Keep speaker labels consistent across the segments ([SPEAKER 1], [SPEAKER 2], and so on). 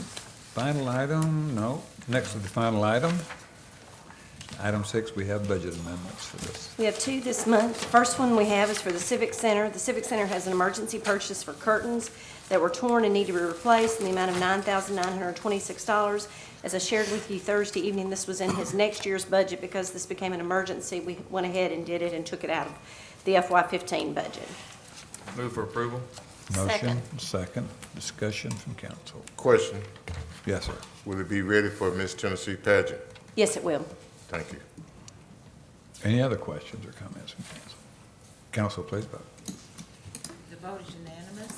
[SPEAKER 1] Final item, no. Next to the final item, item six, we have budget amendments for this.
[SPEAKER 2] We have two this month. The First one we have is for the Civic Center. The Civic Center has an emergency purchase for curtains that were torn and need to be replaced in the amount of $9,926. As I shared with you Thursday evening, this was in his next year's budget because this became an emergency. We went ahead and did it and took it out of the FY15 budget.
[SPEAKER 3] Move for approval?
[SPEAKER 1] Motion,
[SPEAKER 2] Second.
[SPEAKER 1] second, discussion from council.
[SPEAKER 4] Question,
[SPEAKER 1] Yes, sir.
[SPEAKER 4] will it be ready for Miss Tennessee pageant?
[SPEAKER 2] Yes, it will.
[SPEAKER 4] Thank you.
[SPEAKER 1] Any other questions or comments from council? Council, please vote.
[SPEAKER 5] The vote is unanimous.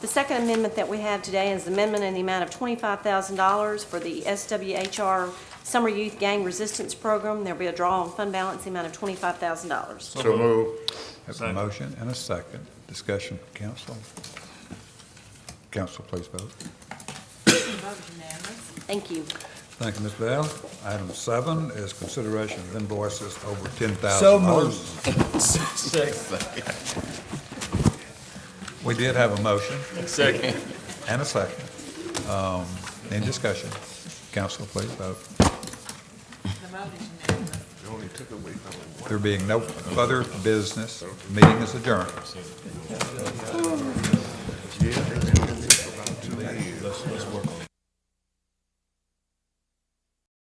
[SPEAKER 2] The second amendment that we have today is amendment in the amount of $25,000 for the SWHR Summer Youth Gang Resistance Program. There'll be a draw on fund balance, the amount of $25,000.
[SPEAKER 4] So move.
[SPEAKER 1] Have a
[SPEAKER 3] Second.
[SPEAKER 1] motion and a second, discussion from council. Council, please vote.
[SPEAKER 5] The vote is unanimous.
[SPEAKER 2] Thank you.
[SPEAKER 1] Thank you, Ms. Bell. Item seven is consideration of invoices over ten
[SPEAKER 6] So
[SPEAKER 1] thousand
[SPEAKER 6] moved.
[SPEAKER 1] dollars. We did have a motion
[SPEAKER 3] Second.
[SPEAKER 1] and a second. Um, Any discussion? Council, please vote.
[SPEAKER 5] The vote is unanimous.
[SPEAKER 1] There being no further business, meeting is adjourned.